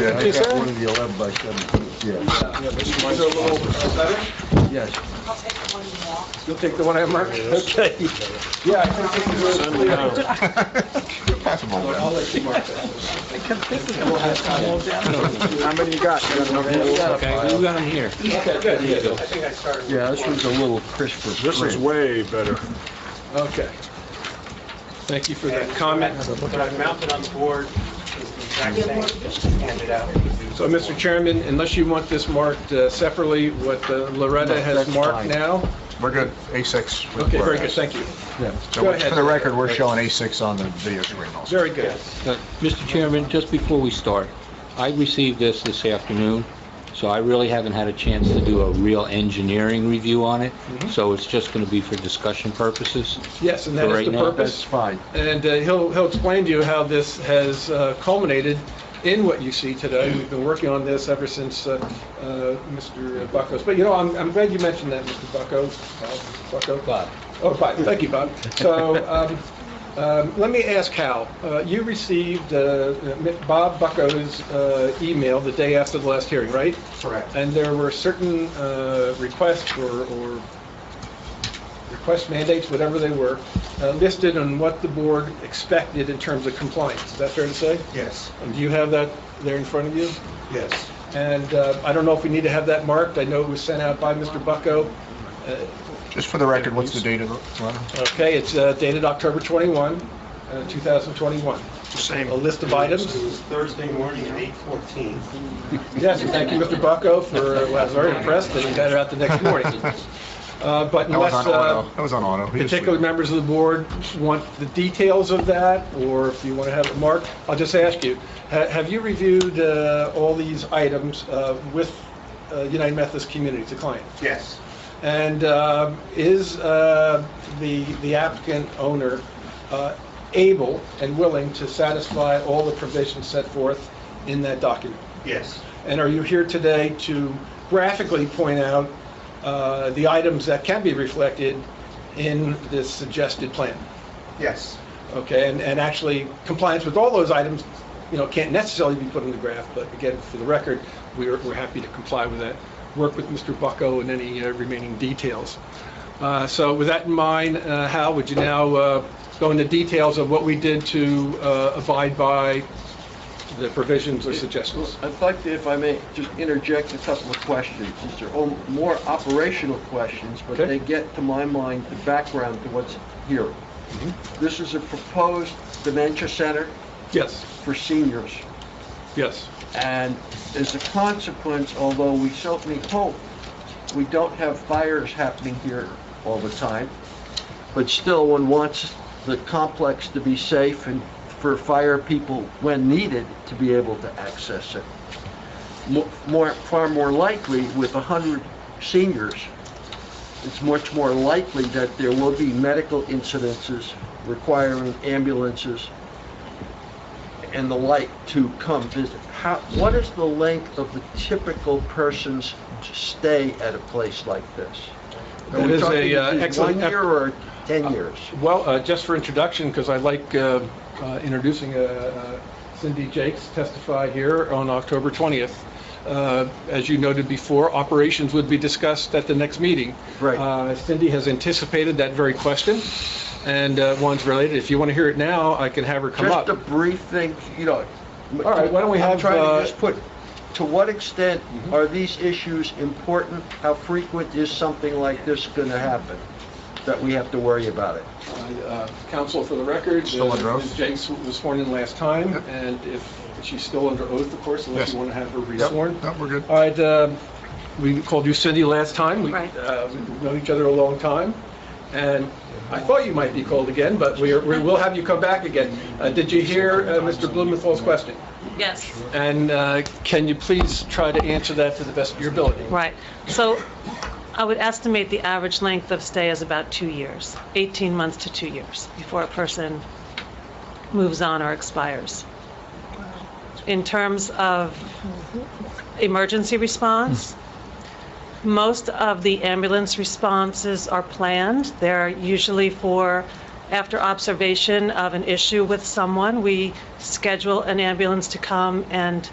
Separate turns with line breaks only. Yeah, I
Yes,
got
sir.
one of the 11 by 17, yeah.
Mine's a little
uh,
better.
Yes.
You'll take the one I have marked? Okay. Yeah, I think this is really clear.
Possible,
I'll let you mark that. How many you got?
uh,
Okay, we got him here.
Okay, good.
yeah, this one's a little crisper.
This is way better.
Okay. Thank you for that comment.
What I've mounted on the board is the exact same as handed out.
So, Mr. Chairman, unless you want this marked uh, separately, what uh, Loretta
No,
has
that's
marked
fine.
now?
We're good, A6. with
Okay, very good,
Whereas.
thank you.
Yeah.
Go
So
ahead.
for the record, we're showing A6 on the video screen also.
Very good.
Uh, Mr. Chairman, just before we start, I received this this afternoon, so I really haven't had a chance to do a real engineering review on it, so it's just going to be for discussion purposes.
Yes, Mm-hmm. and that is
Right
the
now,
That's
purpose.
fine.
And uh, he'll, he'll explain to you how this has uh, culminated in what you see today. We've been working on this ever since uh, uh, Mr. Buckos. But, you know, I'm, I'm glad you mentioned that, Mr. Bucko. Uh, Bucko?
Bob.
Oh, fine, thank you, Bob. So, um, um, let me ask Hal, Uh, you received uh, Bob Bucko's uh, email the day after the last hearing, right?
Correct.
And there were certain uh, requests or or request mandates, whatever they were, uh, listed on what the board expected in terms of compliance. Is that fair to say?
Yes,
And Do you have that there in front of you?
yes.
And uh, I don't know if we need to have that marked. I know it was sent out by Mr. Bucko. Uh,
Just for the record, what's the date of the letter?
Okay, it's uh, dated October 21, uh, 2021.
Same.
A list of items.
It was Thursday morning at 8:14.
Yes, and thank you, Mr. Bucko, for, I was very impressed that he got it out the next morning. Uh, But
That was
unless
on
uh,
auto. That was on auto. He was
particular
sleeping.
members of the board want the details of that, or if you want to have it marked, I'll just ask you, ha- have you reviewed uh, all these items uh, with uh, United Methodist Community, the client?
Yes,
And um, is uh, the the applicant owner uh, able and willing to satisfy all the provisions set forth in that document?
yes,
And are you here today to graphically point out uh, the items that can be reflected in this suggested plan?
yes,
Okay, and, and actually compliance with all those items, you know, can't necessarily be put in the graph, but again, for the record, we're, we're happy to comply with that. Work with Mr. Bucko and any uh, remaining details. Uh, So with that in mind, uh, Hal, would you now uh, go into details of what we did to uh, abide by the provisions or suggestions?
I'd like to, if I may, just interject a couple of questions. These are all more operational questions, but
Okay.
they get, to my mind, the background to what's here.
Mm-hmm.
This is a proposed dementia center
Yes,
for seniors,
yes.
and as a consequence, although we certainly hope we don't have fires happening here all the time, but still, one wants the complex to be safe and for fire people, when needed, to be able to access it mo- more, far more likely with 100 seniors, it's much more likely that there will be medical incidences requiring ambulances and the like to come visit. How, what is the length of the typical person's stay at a place like this? Are
That
we
is
talking
a, uh,
this is
excellent-
One year or 10 years?
Well, uh, just for introduction, because I like uh, uh, introducing uh, uh, Cindy Jakes testify here on October 20th. Uh, As you noted before, operations would be discussed at the next meeting.
Right.
Uh, Cindy has anticipated that very question, and uh, one's related. If you want to hear it now, I can have her come up.
Just a brief thing, you know.
All right, why don't we have,
I'm trying
uh, Mm-hmm.
to just put, to what extent are these issues important? How frequent is something like this going to happen, that we have to worry about it?
Uh, Counsel for the record.
Still under
uh,
oath?
Ms. Jakes was sworn in last time,
Yep.
and if she's still under oath, of course, unless
Yes.
you want to have her
Yep,
resworn.
no, we're good.
All right, um, we called you Cindy last time. We,
Right.
uh, We've known each other a long time, and I thought you might be called again, but we are- we will have you come back again. Uh, Did you hear uh, Mr. Blumenthal's question?
Yes,
And uh, can you please try to answer that to the best of your ability?
right. So I would estimate the average length of stay is about two years, 18 months to two years, before a person moves on or expires. In terms of emergency response, most of the ambulance responses are planned. They're usually for, after observation of an issue with someone, we schedule an ambulance to come and